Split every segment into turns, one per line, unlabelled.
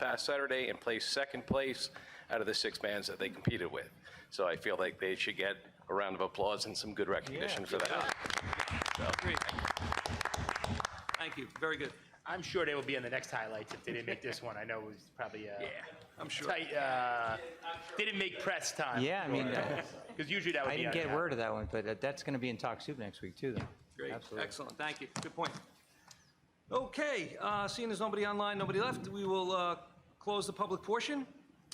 past Saturday and placed second place out of the six bands that they competed with. So I feel like they should get a round of applause and some good recognition for that.
Great. Thank you, very good.
I'm sure they will be in the next highlights if they didn't make this one. I know it was probably uh,
I'm sure.
tight. Uh, didn't make press time.
Yeah, I mean, uh,
because usually that would
I
be.
didn't
on
get
top.
word of that one, but uh, that's going to be in Talk Soup next week, too, though.
Great,
Absolutely.
excellent, thank you, good point. Okay, uh, seeing there's nobody online, nobody left, we will uh, close the public portion,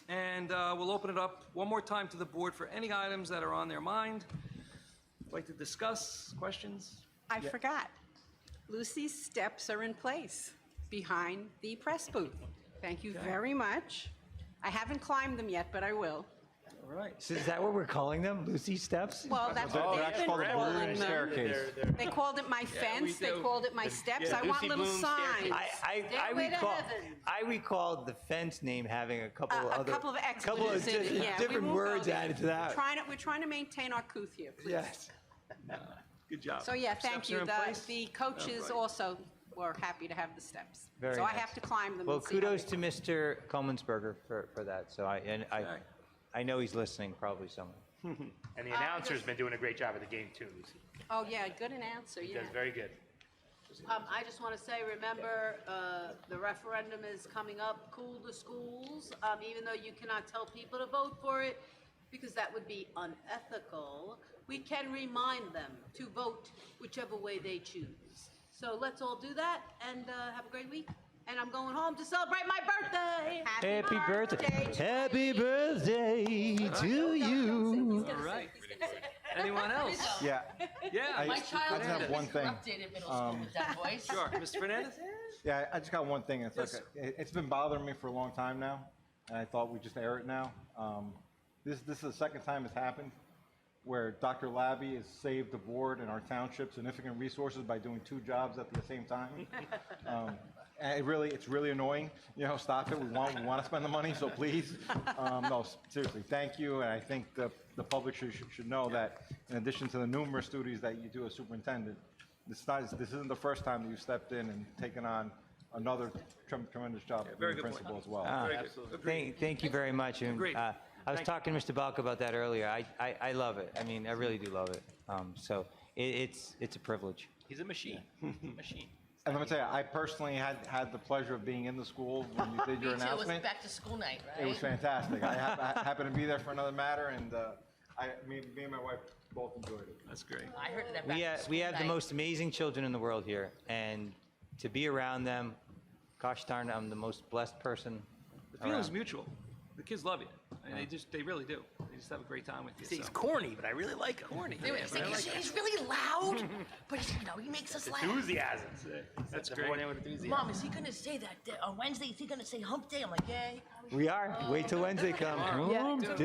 and uh, we'll open it up one more time to the board for any items that are on their mind, like to discuss, questions?
I forgot. Lucy's steps are in place behind the press booth. Thank you very much. I haven't climbed them yet, but I will.
All right,
So is that what we're calling them? Lucy Steps?
Well, that's what
that's
they've been
called a
calling
balloon
them.
staircase.
They're- they're-
They called it my fence, they
do.
called it my steps.
yeah,
I want
Lucy
little
Bloom staircase.
signs.
I, I, I
Stairway to
recall,
heaven.
I recall the fence name having a couple
A- a
other.
couple of
couple
expletives in
di-
it, yeah. We
Different
won't go
words
there.
added to that.
Trying to, we're trying to maintain our couth here, please.
Yes.
good job.
So yeah, thank
Steps are
you.
in
The,
place.
the coaches
All right.
also were happy to have the steps.
Very
So I
nice.
have to climb them
Well,
and see how
kudos to
they-
Mr. Comensberger for, for that. So I, and I,
Okay.
I know he's listening, probably somewhere.
And the announcer's been doing a great job of the game too, Lucy.
Oh, yeah, good announcer,
She
yeah.
does very good.
Um, I just want to say, remember, uh, the referendum is coming up, cool the schools, um, even though you cannot tell people to vote for it, because that would be unethical. We can remind them to vote whichever way they choose. So let's all do that and, uh, have a great week. And I'm going home to celebrate my birthday.
Happy birthday. Happy birthday to you.
All right. Anyone else?
Yeah.
Yeah,
I-
My child
Let's have
was
one thing. Um,
disrupted in middle school with that voice.
sure, Mr. Fernandez?
Yeah, I just got one thing. It's like,
Yes,
it- it's been bothering me for a long time now, and I thought we'd just air it now. Um, This, this is the second time it's happened, where Dr. Labby has saved the board and our township significant resources by doing two jobs at the same time. Um, And it really, it's really annoying. You know, stop it. We want, we want to spend the money, so please. Um, No, seriously, thank you, and I think the, the public should, should- should know that in addition to the numerous duties that you do as superintendent, this not, this isn't the first time that you've stepped in and taken on another trem- tremendous job
very
being
good point.
principal as well.
Ah.
Very good.
Thank, thank you very much. And,
Agreed.
uh, I was
Thank you.
talking to Mr. Balk about that earlier. I, I, I love it. I mean, I really do love it. Um, so it, it's, it's a privilege.
He's a machine. machine.
And let me tell you, I personally had, had the pleasure of being in the school when you did
Me
your
too. It was
announcement.
back to school night, right?
It was fantastic. I hap- I happened to be there for another matter, and uh, I, me, me and my wife both enjoyed it.
That's great.
I heard that back
We,
to
ha-
school
we have the
night.
most amazing children in the world here. And to be around them, gosh darn, I'm the most blessed person
The feeling's
around.
mutual. The kids love you, and they just, they really do. They just have a great time with you,
He's
so.
corny, but I really like him. Corny.
They were saying, he's, he's really loud, but you know he makes us laugh.
Enthusiasm.
That's
the
great.
morning with enthusiasm.
Mom, is he gonna say that day- on Wednesday? Is he gonna say Hump Day? I'm like, yay.
We are. Wait till Wednesday comes.
And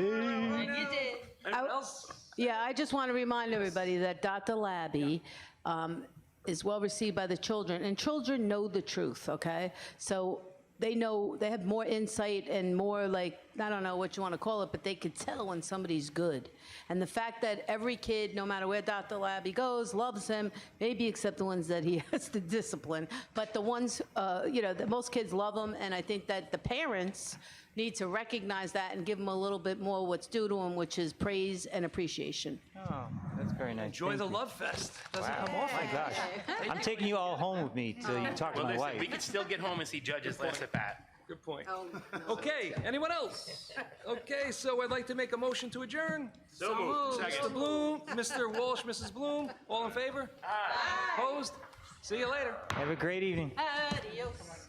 you did.
Anyone else?
Yeah, I just want to remind everybody that Dr. Labby um, is well received by the children, and children know the truth, okay? So they know, they have more insight and more like, I don't know what you want to call it, but they could tell when somebody's good. And the fact that every kid, no matter where Dr. Labby goes, loves him, maybe except the ones that he has to discipline, but the ones, uh, you know, that most kids love him, and I think that the parents need to recognize that and give them a little bit more what's due to them, which is praise and appreciation.
Oh, that's very nice.
Enjoy
Thank
the
you.
love fest. Doesn't
Wow.
come often.
My gosh. I'm taking you all home with me till you talk to
Well,
my
listen, we
wife.
could still get home and see judges last at bat.
Good point.
Oh, no.
Okay, anyone else? Okay, so I'd like to make a motion to adjourn.
So moved. Second.
Mr. Bloom, Mr. Walsh, Mrs. Bloom, all in favor? Aye. Opposed? See you later.
Have a great evening.
Adios.